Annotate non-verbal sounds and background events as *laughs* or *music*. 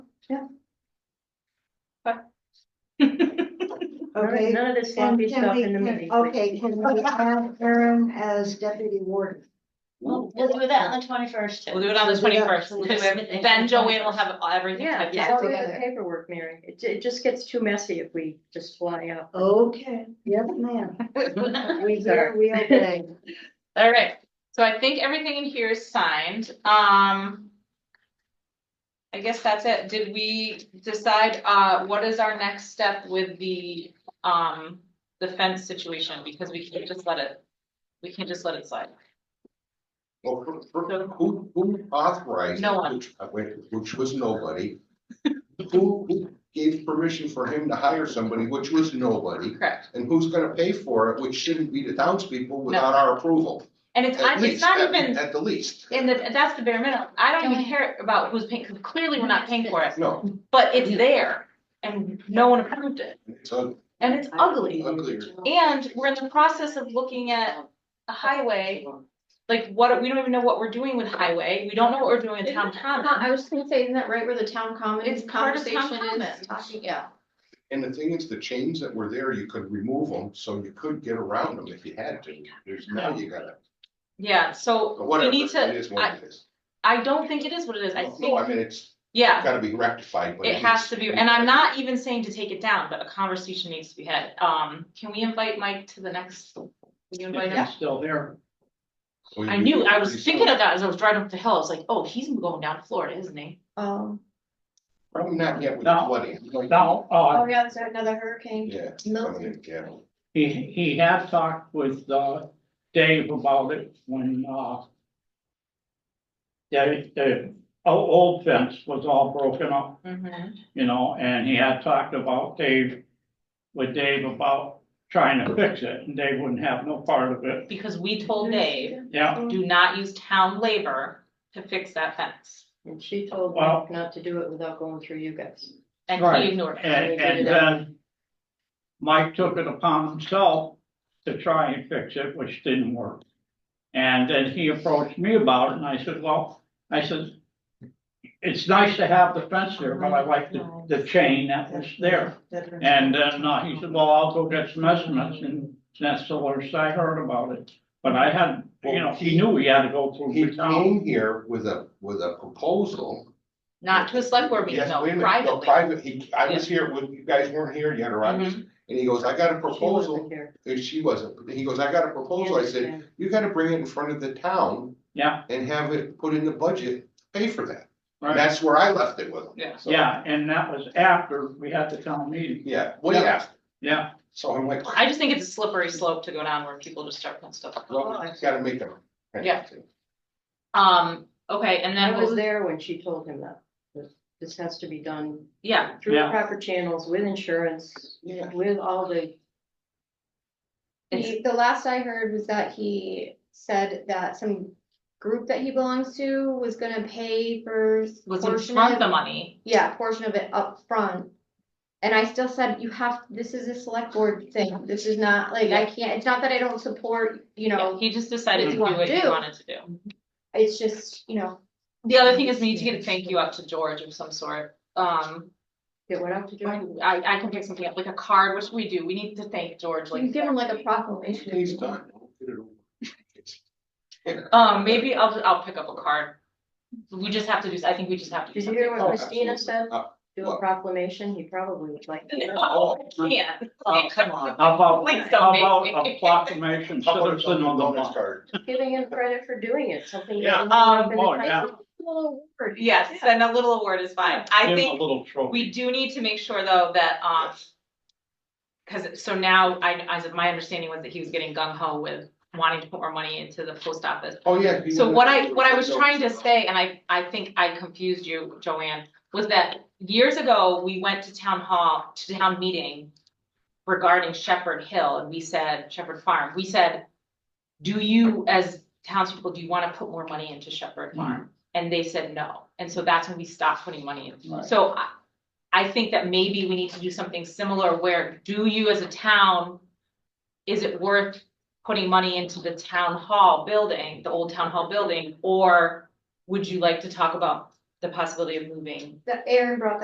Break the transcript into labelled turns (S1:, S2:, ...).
S1: Okay,
S2: None of this
S1: and
S2: sloppy
S1: Um, can
S2: stuff
S1: we-
S2: in the
S1: can-
S2: meeting.
S1: Okay, can *laughs*
S3: *laughs*
S1: we have Aaron as deputy warden?
S4: We'll we'll do that on the twenty first
S5: We'll
S4: too.
S5: do it on the
S1: We'll do
S5: twenty
S1: that.
S5: first,
S1: We'll do
S2: everything on
S5: then
S2: the
S5: Joanne will have everything
S2: Yeah,
S5: typed
S2: just
S5: out.
S2: all the
S1: together.
S2: paperwork, Mary. It, ju- it just gets too messy if we just fly out.
S1: Okay, yes,
S3: *laughs*
S1: ma'am. We
S2: Sorry.
S1: hear, we obey.
S5: *laughs* All right, so I think everything in here is signed, um. I guess that's it, did we decide, uh, what is our next step with the, um, the fence situation, because we can't just let it. We can't just let it slide,
S6: Well, for- for- who, who authorized?
S5: No one.
S6: which- uh, Which, which was nobody. *laughs* Who, who gave permission for him to hire somebody, which was nobody,
S5: correct,
S6: and who's gonna pay for it, which shouldn't be the townspeople without our approval?
S5: and it's,
S6: At
S5: I- it's
S6: least,
S5: not
S6: at-
S5: even,
S6: At the least,
S5: and that- that's the bare minimum, I don't even
S4: Joanne.
S5: care about who's paying, 'cause clearly we're not paying for it,
S6: no,
S5: but it's there. And no one approved it,
S6: it's un-
S5: and it's ugly,
S6: unclear.
S5: and we're in the process of looking at a highway like what, we don't even know what we're doing with highway, we don't know what we're doing with town common.
S3: Uh, I was gonna say, isn't that right where the town common
S5: It's part of town
S3: conversation
S5: common.
S3: is talking, yeah.
S6: And the thing is, the chains that were there, you could remove them, so you could get around them if you had to. There's now you gotta,
S5: Yeah, so we
S6: whatever,
S5: need
S6: it
S5: to,
S6: is
S5: I,
S6: what it is.
S5: I don't think it is what it is, I
S6: No, I
S5: think,
S6: mean, it's
S5: yeah,
S6: gotta be rectified, but.
S5: it
S6: at
S5: has
S6: least-
S5: to be, and I'm not even saying to take it down, but a conversation needs to be had. Um, can we invite Mike to the next? Will you invite him?
S7: Still there.
S6: We-
S5: I knew, I
S6: we-
S5: was thinking of that as I was driving up the hill, I was like, oh, he's going down to Florida, isn't he?
S1: Um,
S3: Oh.
S6: Probably not yet with the
S7: No.
S6: flooding. like-
S7: Now, uh,
S3: Oh, yeah, there's another hurricane.
S6: Yeah.
S3: No.
S6: something like that.
S7: he, he had talked with, uh, Dave about it when, uh, the, the o- old fence was all broken up,
S3: Mm-hmm.
S7: you know, and he had talked about Dave, with Dave about trying to fix it, and Dave wouldn't have no part of it,
S5: Because we told Dave,
S7: yeah.
S5: do not use town labor to fix that fence,
S2: And she told
S7: Well-
S2: Mike not to do it without going through you guys.
S5: and
S7: Right.
S5: he ignored it.
S7: And, and then Mike took it upon himself to try and fix it, which didn't work. And then he approached me about it and I said, well, I said, it's nice to have the fence there, but I like the, the chain that was there. And then uh, he said, well, I'll go get some estimates and that's the worst I heard about it. But I had, you know, he knew he had to go through
S6: He
S7: the town.
S6: came here with a, with a proposal.
S5: Not to a select board meeting,
S6: Yes,
S5: no,
S6: wait a minute, no,
S5: privately. Mm-hmm.
S6: Private, he, I was here, when you guys weren't here, you had around, and he goes, I got a
S2: She wasn't
S6: proposal,
S2: here.
S6: and she wasn't, he goes, I got a proposal, I said, you gotta bring it in front of the town.
S7: Yeah.
S6: And have it put in the budget, pay for that,
S7: right?
S6: And that's where I left it with him.
S5: Yeah.
S6: So,
S7: Yeah, and that was after we had the town meeting,
S6: Yeah, what do you ask?
S7: yeah.
S6: So I'm like,
S5: I just think it's a slippery slope to go down where people just start putting stuff. up.
S6: well, I gotta make them.
S5: Yeah. Um, okay, and
S2: I
S5: then what
S2: was
S5: was,
S2: there when she told him that. This- This has to be done
S5: yeah,
S2: through
S7: Yeah.
S2: proper channels with insurance,
S6: Yeah.
S2: with all the,
S3: He, the last I heard was that he said that some group that he belongs to was gonna pay for. s-
S5: was in
S3: portion
S5: front of
S3: of-
S5: the money.
S3: Yeah, portion of it up front. And I still said, you have, this is a select board thing, this is not, like, I can't, it's not that I don't support, you
S5: Yeah,
S3: know,
S5: he just decided
S3: What
S5: to do
S3: you wanna
S5: what he
S3: do.
S5: wanted to do.
S3: it's just, you know.
S5: The other thing is we need to get a thank you up to George of some sort. Um,
S2: it went out to Joanne.
S5: I, I can pick something up, like a card, which we do. We need to thank George like.
S3: You give him like a proclamation.
S6: He's done. Get it over. It's-
S5: Um, maybe I'll, I'll pick up a card. We just have to do, I think we just have to. do
S2: Did you hear
S5: something.
S2: what Christina said?
S6: Uh,
S2: Do a
S6: what?
S2: proclamation, he probably would like. to.
S5: No, Oh, I can't.
S7: Oh,
S5: come on.
S7: How about,
S5: Please
S7: how
S5: don't
S7: about
S5: make me. *laughs*
S7: a proclamation
S6: How about
S7: citizen of the
S6: bonus
S7: month?
S6: card?
S2: Giving him credit for doing it, something. that
S7: Yeah.
S2: ended up
S6: Um,
S2: in the
S7: Oh, yeah.
S2: title. Little word.
S5: Yes, and a little award is fine. I
S7: Give
S5: think.
S7: a little trophy.
S5: We do need to make sure though that, um. Cause so now I, as of my understanding was that he was getting gung ho with wanting to put more money into the post office.
S6: Oh, yeah. he
S5: So
S6: went
S5: what
S6: up
S5: I,
S6: to
S5: what I
S6: the
S5: was
S6: window.
S5: trying to say, and I, I think I confused you, Joanne, was that years ago, we went to town hall, to town meeting. Regarding Shepherd Hill and we said Shepherd Farm, we said. Do you, as townspeople, do you wanna put more money into Shepherd Farm? And they said no, and so that's when we stopped putting money in.
S7: Right.
S5: So I, I think that maybe we need to do something similar where do you as a town, is it worth putting money into the town hall building, the old town hall building? Or would you like to talk about the possibility of moving
S3: That Aaron brought that